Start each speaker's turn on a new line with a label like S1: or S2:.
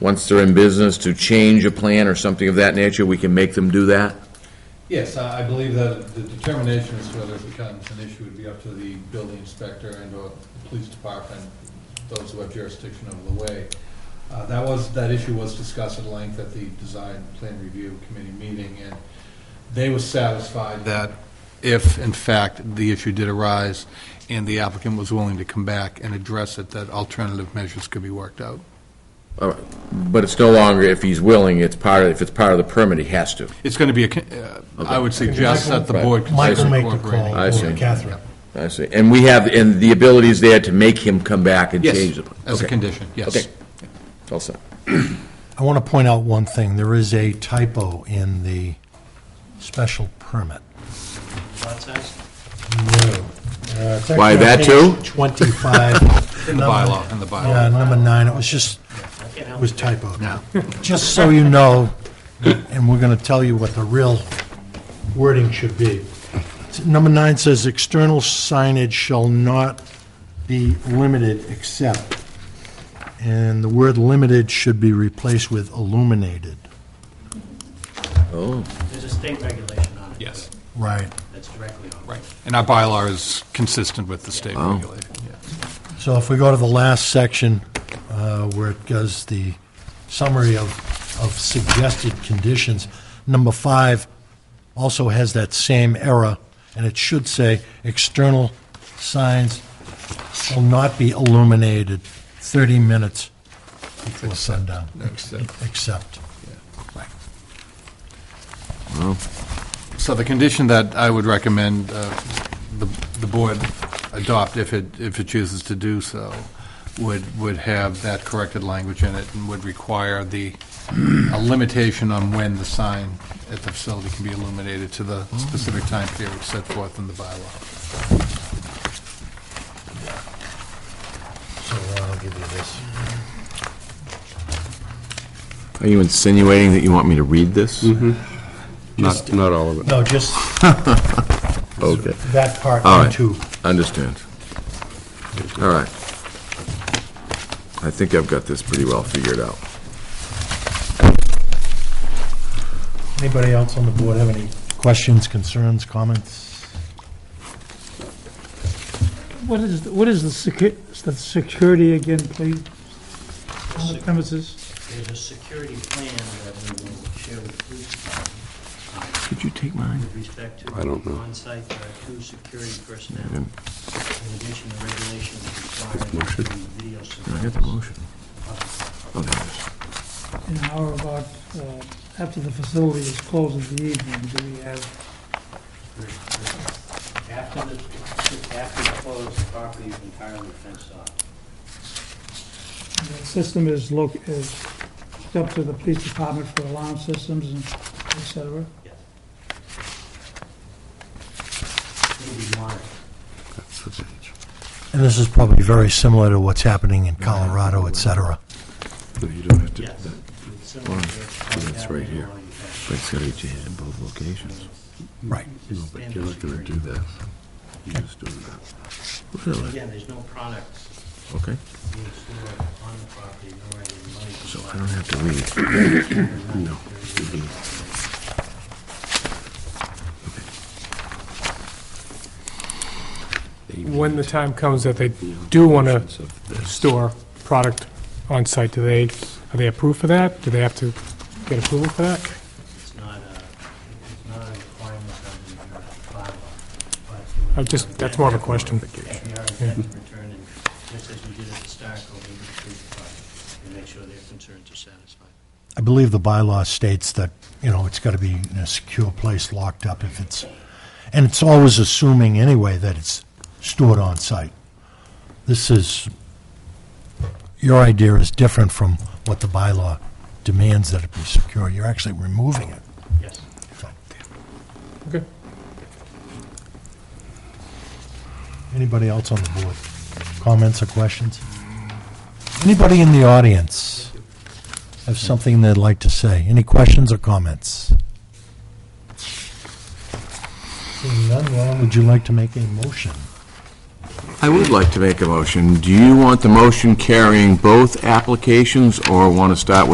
S1: once they're in business, to change a plan or something of that nature, we can make them do that?
S2: Yes, I I believe that the determination as to whether it becomes an issue would be up to the building inspector and/or the police department, those who have jurisdiction over the way. Uh, That was, that issue was discussed at length at the Design Plan Review Committee meeting, and they were satisfied that if, in fact, the issue did arise and the applicant was willing to come back and address it, that alternative measures could be worked out.
S1: All right. But it's no longer, if he's willing, it's part, of if it's part of the permit, he has to.
S2: It's going to be, a con- uh, I would suggest that the
S1: Michael-
S2: board consider
S3: Michael make the
S2: incorporating.
S3: call,
S1: I see.
S3: or Catherine.
S1: I see. And we have, and the ability is there to make him come back and change
S2: Yes,
S1: the plan?
S2: as a
S1: Okay.
S2: condition, yes.
S1: Okay. All set.
S3: I want to point out one thing. There is a typo in the special permit.
S4: Lot size?
S3: No. Uh, it's
S1: Why,
S3: actually on
S1: that too?
S3: page 25.
S2: In the
S3: Number-
S2: bylaw, in the bylaw.
S3: Yeah, number nine, it was just,
S4: You
S3: it
S4: know,
S3: was typoed.
S2: Yeah.
S3: Just so you know, and we're going to tell you what the real wording should be. Number nine says, "External signage shall not be limited except," and the word "limited" should be replaced with "illuminated."
S1: Oh,
S4: There's a state regulation on it.
S2: Yes,
S3: Right.
S4: That's directly on it.
S2: right. And our bylaw is consistent with the state
S1: Wow.
S2: regulation. yeah.
S3: So if we go to the last section, uh, where it goes the summary of, of suggested conditions, number five also has that same error, and it should say, external signs shall not be illuminated 30 minutes before sundown.
S2: Except.
S3: Except.
S2: So the condition that I would recommend uh, the the board adopt, if it, if it chooses to do so, would, would have that corrected language in it and would require the, a limitation on when the sign at the facility can be illuminated to the specific time period set forth in the bylaw.
S3: So uh, I'll give you this.
S5: Are you insinuating that you want me to read this? Not, not all of it.
S3: No, just
S5: Okay,
S3: that part,
S5: All
S3: one,
S5: right.
S3: two.
S5: understand. All right. I think I've got this pretty well figured out.
S3: Anybody else on the board have any questions, concerns, comments?
S6: What is, what is the secu, the security again, please? On the premises?
S4: There's a security plan that we will share with the police department.
S5: Could you take
S4: uh,
S5: mine?
S4: With respect to.
S5: I don't know.
S4: On-site, there are two security personnel.
S5: Yeah.
S4: In addition, the regulations require
S5: motion.
S4: that the video
S5: Did I
S4: surveillance.
S5: get the motion? Oh, there it is.
S6: And how about, uh, after the facility is closed in the evening, do we have,
S4: After the, after the close, the property is entirely fenced off.
S6: the system is loc, is hooked up to the police department for alarm systems and et cetera?
S4: Yes. It'll be monitored.
S3: And this is probably very similar to what's happening in Colorado, et cetera.
S5: No, you don't have to,
S4: Yes.
S5: that-
S4: With similar to what's
S5: that's right
S4: happening
S5: here.
S4: along the fence.
S5: but it's gotta be changed in both locations.
S3: Right.
S5: No, but you're not gonna do that. You're just doing that. Really?
S4: Again, there's no products
S5: Okay,
S4: being stored on the property, nor any money.
S5: so I don't have to read. No.
S7: When the time comes that they do want to
S5: Of this.
S7: store product on site, do they, are they approved for that? Do they have to get approval for that?
S4: It's not a, it's not a requirement under your bylaw, but.
S7: I just, that's more of a question.
S4: If you are in fact returned, and just as we did at the start, go over the police department and make sure their concerns are satisfied.
S3: I believe the bylaw states that, you know, it's got to be in a secure place, locked up if it's, and it's always assuming anyway that it's stored on site. This is, your idea is different from what the bylaw demands that it be secure. You're actually removing it.
S4: Yes.
S7: Okay.
S3: Anybody else on the board? Comments or questions? Anybody in the audience have something they'd like to say? Any questions or comments? Seeing none, Ron, would you like to make a motion?
S1: I would like to make a motion. Do you want the motion carrying both applications, or want to start with